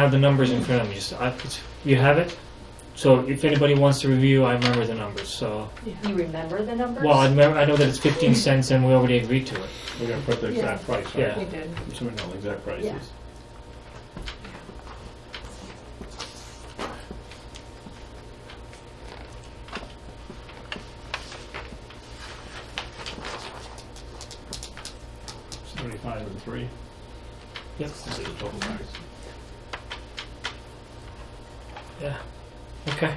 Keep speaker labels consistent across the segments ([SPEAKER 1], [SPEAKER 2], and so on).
[SPEAKER 1] have the numbers in front of me. Just, I, it's- you have it? So if anybody wants to review, I remember the numbers, so.
[SPEAKER 2] You remember the numbers?
[SPEAKER 1] Well, I remember, I know that it's fifteen cents and we already agreed to it.
[SPEAKER 3] We're gonna put the exact price, right?
[SPEAKER 1] Yeah.
[SPEAKER 4] We did.
[SPEAKER 3] So we know the exact
[SPEAKER 2] Yeah.
[SPEAKER 3] prices. Seventy-five and three,
[SPEAKER 1] Yep,
[SPEAKER 3] this is the total price.
[SPEAKER 1] yeah, okay.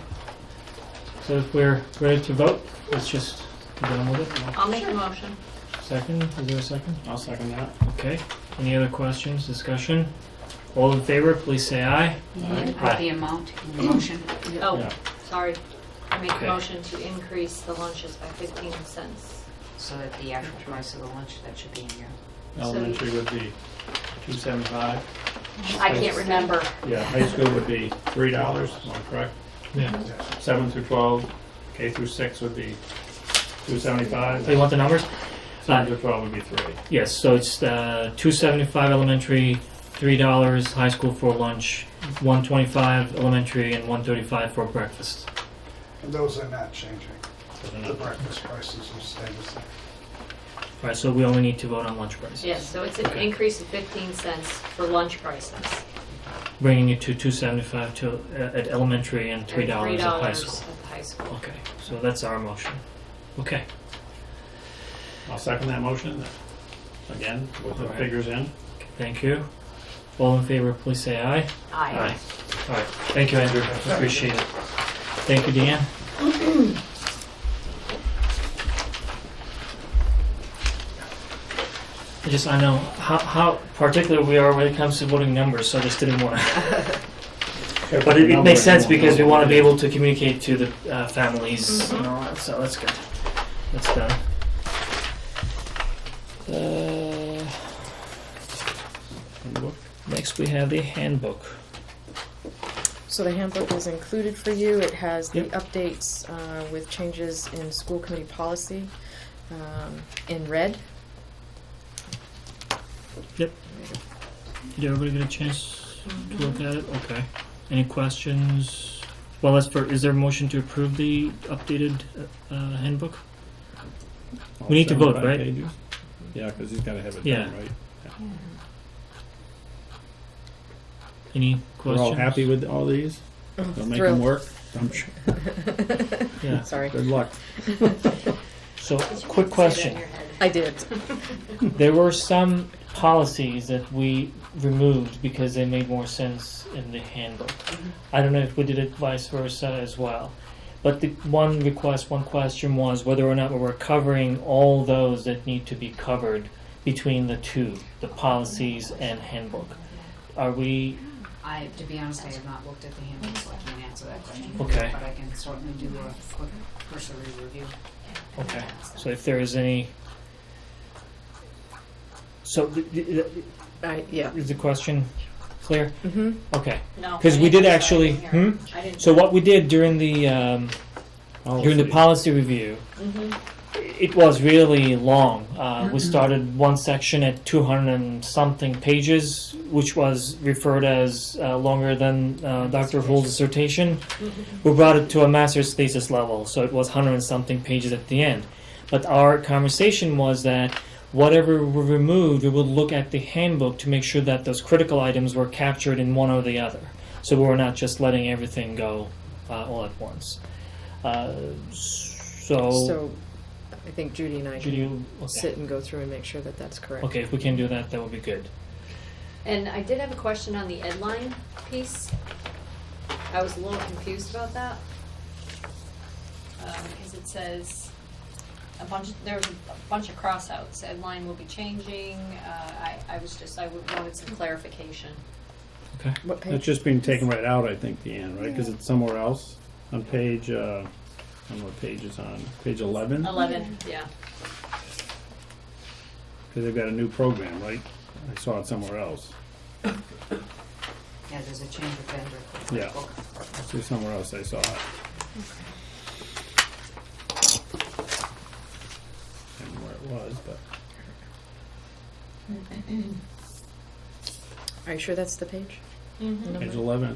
[SPEAKER 1] So if we're ready to vote, let's just be done with it.
[SPEAKER 4] I'll make a motion.
[SPEAKER 1] Second, is there a second?
[SPEAKER 3] I'll second that.
[SPEAKER 1] Okay, any other questions, discussion? All in favor, please say aye.
[SPEAKER 5] You need to put the amount in the motion.
[SPEAKER 2] Oh,
[SPEAKER 3] Yeah.
[SPEAKER 2] sorry. I make
[SPEAKER 1] Okay.
[SPEAKER 2] a motion to increase the lunches by fifteen cents.
[SPEAKER 5] So that the actual price of the lunch, that should be in here.
[SPEAKER 3] Elementary would be two seventy-five.
[SPEAKER 2] I can't remember.
[SPEAKER 3] Yeah, high school would be three dollars, am I correct?
[SPEAKER 1] Yeah.
[SPEAKER 3] Seven through twelve, K through six would be two seventy-five.
[SPEAKER 1] So you want the numbers?
[SPEAKER 3] Seven to twelve would be three.
[SPEAKER 1] Yes, so it's uh, two seventy-five elementary, three dollars high school for lunch, one twenty-five elementary, and one thirty-five for breakfast.
[SPEAKER 6] And those are not changing.
[SPEAKER 3] So then
[SPEAKER 6] The breakfast prices will stay the same.
[SPEAKER 1] All right, so we only need to vote on lunch prices.
[SPEAKER 2] Yes, so it's an
[SPEAKER 1] Okay.
[SPEAKER 2] increase of fifteen cents for lunch prices.
[SPEAKER 1] Bringing it to two seventy-five to uh, at elementary and
[SPEAKER 2] and
[SPEAKER 1] three dollars at high
[SPEAKER 2] $3
[SPEAKER 1] school.
[SPEAKER 2] at high school.
[SPEAKER 1] Okay, so that's our motion. Okay,
[SPEAKER 3] I'll second that motion, again, with the
[SPEAKER 1] Alright.
[SPEAKER 3] figures in.
[SPEAKER 1] thank you. All in favor, please say aye.
[SPEAKER 2] Aye.
[SPEAKER 1] All right, thank you, Andrew. Appreciate it. Thank you, Deanne. I just, I know how, how particular we are when it comes to voting numbers, so I just didn't want to. But it, it makes sense because we want to be able to communicate to the uh, families and all that, so that's good. That's done. Uh, next, we have the handbook.
[SPEAKER 7] So the handbook is included for you. It has the
[SPEAKER 1] Yep.
[SPEAKER 7] updates uh, with changes in school committee policy um, in red.
[SPEAKER 1] Did everybody get a chance to look at it? Okay. Any questions? Well, as for, is there a motion to approve the updated uh, uh, handbook? We need to vote, right?
[SPEAKER 3] Yeah, because he's gotta have it
[SPEAKER 1] Yeah.
[SPEAKER 3] done, right?
[SPEAKER 1] Any
[SPEAKER 3] We're
[SPEAKER 1] questions?
[SPEAKER 3] all happy with all these? They'll make them
[SPEAKER 7] thrilled.
[SPEAKER 3] work? I'm sure.
[SPEAKER 1] Yeah.
[SPEAKER 7] Sorry,
[SPEAKER 3] Good luck.
[SPEAKER 1] So,
[SPEAKER 2] Did you
[SPEAKER 1] quick
[SPEAKER 2] say that in
[SPEAKER 1] question.
[SPEAKER 2] your head?
[SPEAKER 7] I did.
[SPEAKER 1] There were some policies that we removed because they made more sense in the handbook. I don't know if we did it vice versa as well. But the one request, one question was whether or not we were covering all those that need to be covered between the two, the policies and handbook. Are we,
[SPEAKER 5] I, to be honest, I have not looked at the handbook, so I can't answer that question.
[SPEAKER 1] Okay.
[SPEAKER 5] But I can certainly do a quick cursory review.
[SPEAKER 1] okay, so if there is any. So, th- th- th-
[SPEAKER 7] I, yeah.
[SPEAKER 1] is the question clear?
[SPEAKER 7] Mm-hmm.
[SPEAKER 1] Okay,
[SPEAKER 2] No.
[SPEAKER 1] because
[SPEAKER 2] I
[SPEAKER 1] we
[SPEAKER 2] didn't-
[SPEAKER 1] did actually,
[SPEAKER 2] I didn't
[SPEAKER 1] hmm?
[SPEAKER 2] hear. I didn't.
[SPEAKER 1] So what we did during the, um, during the policy
[SPEAKER 3] Policy.
[SPEAKER 1] review,
[SPEAKER 2] Mhm.
[SPEAKER 1] it was really long. Uh, we started one section at 200 and something pages, which was referred as uh, longer than uh, Dr. Hull's dissertation. We brought it to a master's thesis level, so it was 100 and something pages at the end. But our conversation was that whatever we removed, we would look at the handbook to make sure that those critical items were captured in one or the other. So we were not just letting everything go uh, all at once. Uh, Oh.
[SPEAKER 7] So I think Judy and I
[SPEAKER 1] should
[SPEAKER 7] can
[SPEAKER 1] you okay.
[SPEAKER 7] sit and go through and make sure that that's correct.
[SPEAKER 1] okay, if we can do that, that would be good.
[SPEAKER 2] And I did have a question on the ed line piece. I was a little confused about that. Um, because it says a bunch, of- there was a bunch of crossouts, ed line will be changing, uh, I, I was just, I would- wanted some clarification.
[SPEAKER 1] Okay.
[SPEAKER 7] What page?
[SPEAKER 3] It's just being taken right out, I think, Deanne, right? Because it's somewhere else on page, uh, I don't know what page it's on, page eleven?
[SPEAKER 2] Eleven, yeah.
[SPEAKER 3] Because they've got a new program, right? I saw it somewhere else.
[SPEAKER 5] Yeah, there's a change of vendor for the
[SPEAKER 3] Yeah.
[SPEAKER 5] book.
[SPEAKER 3] See somewhere else I saw it. I don't know where it was, but
[SPEAKER 7] Are you sure that's the page?
[SPEAKER 2] Mm-hmm.
[SPEAKER 7] Number-
[SPEAKER 3] page eleven,